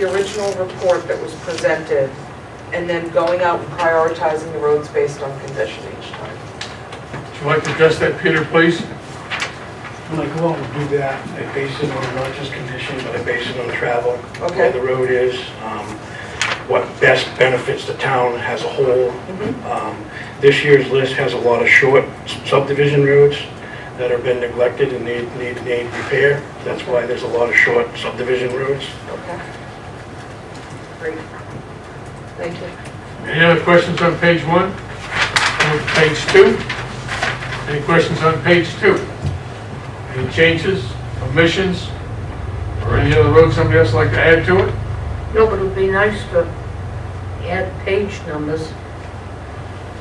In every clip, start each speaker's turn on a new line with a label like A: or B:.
A: the original report that was presented, and then going out and prioritizing the roads based on condition each time.
B: Would you like to address that, Peter, please?
C: When I go out and do that, I base it on not just condition, but I base it on travel,
A: Okay.
C: where the road is, um, what best benefits the town as a whole.
D: Mm-hmm.
C: Um, This year's list has a lot of short subdivision roads that have been neglected and need, need, need repair. That's why there's a lot of short subdivision roads.
A: Okay. Great. Thank you.
B: Any other questions on page one? Or page two? Any questions on page two? Any changes, omissions, or any other road somebody else would like to add to it?
E: No, but it would be nice to add page numbers.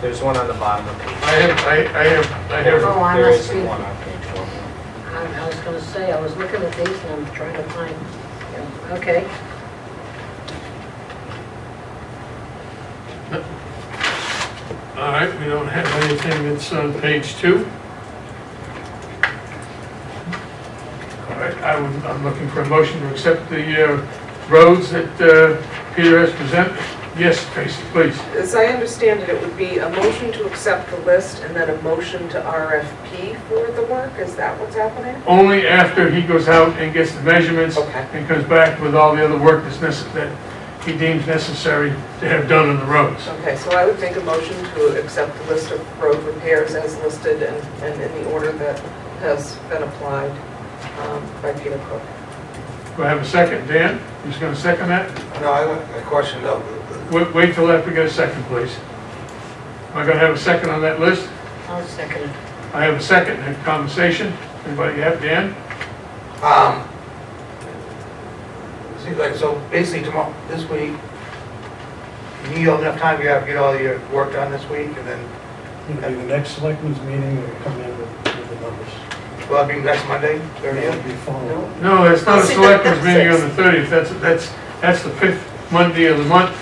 F: There's one on the bottom of page.
B: I have, I I have, I have,
E: Oh, I
F: There
E: must
F: is
E: be-
F: one on page one.
E: I I was gonna say, I was looking at these and I'm trying to find, yeah, okay.
B: all right, we don't have anything that's on page two. All right, I would, I'm looking for a motion to accept the uh, roads that uh, Peter has presented. Yes, Tracy, please.
A: As I understand it, it would be a motion to accept the list and then a motion to RFP for the work, is that what's happening?
B: Only after he goes out and gets the measurements
A: Okay.
B: and comes back with all the other work that's necess, that he deems necessary to have done on the roads.
A: Okay, so I would make a motion to accept the list of road repairs as listed and, and in the order that has been applied um, by Peter Cook.
B: Do I have a second? Dan, who's gonna second that?
G: No, I want a question though.
B: Wait, wait till after we get a second, please. Am I gonna have a second on that list?
E: I'll second it.
B: I have a second, have conversation. Anybody have, Dan?
G: Um, See, like, so basically tomorrow, this week, you need enough time, you have to get all your work done this week and then,
C: It'll be the next selectmen's meeting, we'll come in with with the numbers.
G: well, that'd be next Monday,
C: It'll
G: thirtieth.
C: be following.
B: No, that's not a
A: See,
B: selectmen's
A: that's
B: meeting on
A: six.
B: the thirtieth, that's, that's, that's the fifth Monday of the month,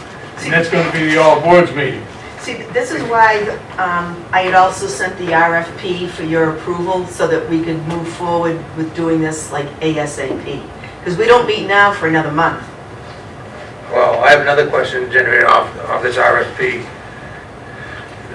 B: and that's gonna be the all boards meeting.
D: See, this is why um, I had also sent the RFP for your approval so that we could move forward with doing this like ASAP. Because we don't meet now for another month.
G: Well, I have another question generated off, off this RFP.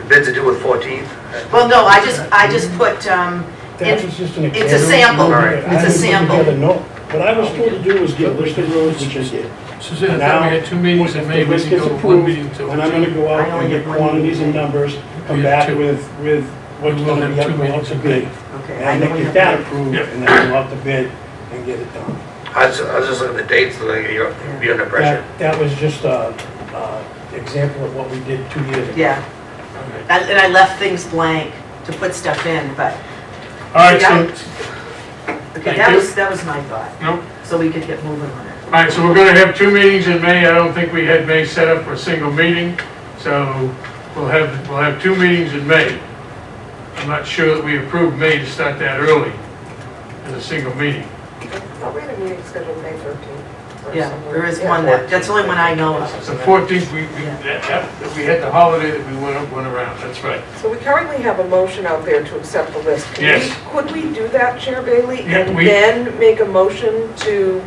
G: Bids are due with fourteenth.
D: Well, no, I just, I just put, um,
C: That's
D: in-
C: just an
D: it's
C: example.
D: a sample.
C: I
D: It's a
C: didn't put
D: sample.
C: together no- What I was told to do was get listed roads, which is it.
B: Suzanne,
C: I thought we
B: had two meetings, and
C: If this gets approved, then I'm gonna go
D: I
C: out and
D: only
C: get
D: have one
C: quantities and
D: meeting.
C: numbers,
B: We
C: come
B: have
C: back
B: two.
C: with, with what's
B: We will
C: gonna be
B: have
C: up
B: two
C: go out
B: meetings
C: to
B: a
C: bid.
D: okay. I
C: And
D: know
C: then
D: we
C: get
D: have-
C: that approved,
B: Yep.
C: and then go out to bid and get it done.
G: I was, I was just looking at the dates, like, you're, you're under pressure.
C: That, that was just a, a example of what we did two years ago.
D: Yeah. And and I left things blank to put stuff in, but,
B: All right, so,
D: okay,
B: Thank
D: that
B: you.
D: was, that was my thought,
B: no, all
D: so we could get moving on it.
B: right, so we're gonna have two meetings in May, I don't think we had May set up for a single meeting, so we'll have, we'll have two meetings in May. I'm not sure that we approved May to start that early as a single meeting.
A: Oh, we had a meeting scheduled May 13th. or
D: Yeah,
A: somewhere.
D: there is
A: Yeah.
D: one that, that's the only one I know of.
B: So 14th, we, we, that- that- we had the holiday that we went, went around, that's right.
A: So we currently have a motion out there to accept the list. Could we-
B: Yes.
A: Could we do that, Chair Bailey?
B: Yeah,
A: And
B: we-
A: then make a motion to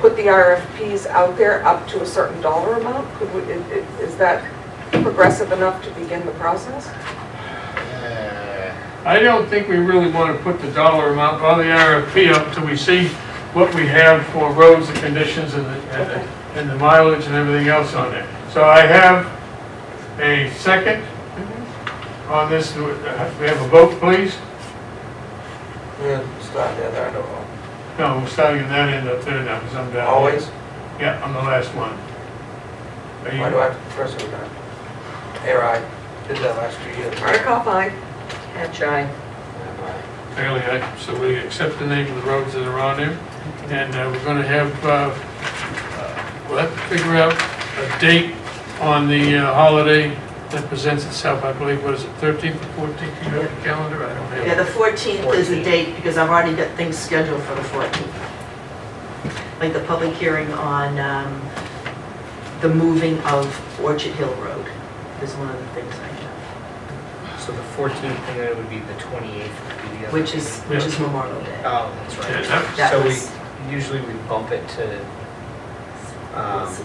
A: put the RFPs out there up to a certain dollar amount? Could we, i- i- is that progressive enough to begin the process?
F: Uh,
B: I don't think we really want to put the dollar amount on the RFP up till we see what we have for roads and conditions and the, and the- and the mileage and everything else on there. So I have a second on this, Do it- uh, we have a vote, please?
G: Yeah, start there, there, no,
B: No, we're starting at that end up there now, because I'm down. here.
G: always.
B: Yeah, I'm the last one. Are
G: Why do I
B: you,
G: have to first of that? Air I did that last few years.
A: Hardikoff, aye.
E: Hatch eye.
B: fairly, I- so we accept the name of the roads that are on there, and uh, we're gonna have, uh, uh, we'll have to figure out a date on the uh, holiday that presents itself, I believe, what is it, 13th or 14th, you have the calendar, I don't have.
D: Yeah,
B: it.
D: the 14th is the date, because I've already got things scheduled for the 14th. Like the public hearing on um, the moving of Orchard Hill Road is one of the things I have,
F: So the fourteenth, and then it would be the twenty-eighth would be the other.
D: which is, which is Memorial Day.
F: Oh, that's
B: Yeah,
F: right.
B: that-
D: That
F: So
D: was-
F: we, usually we bump it to Um,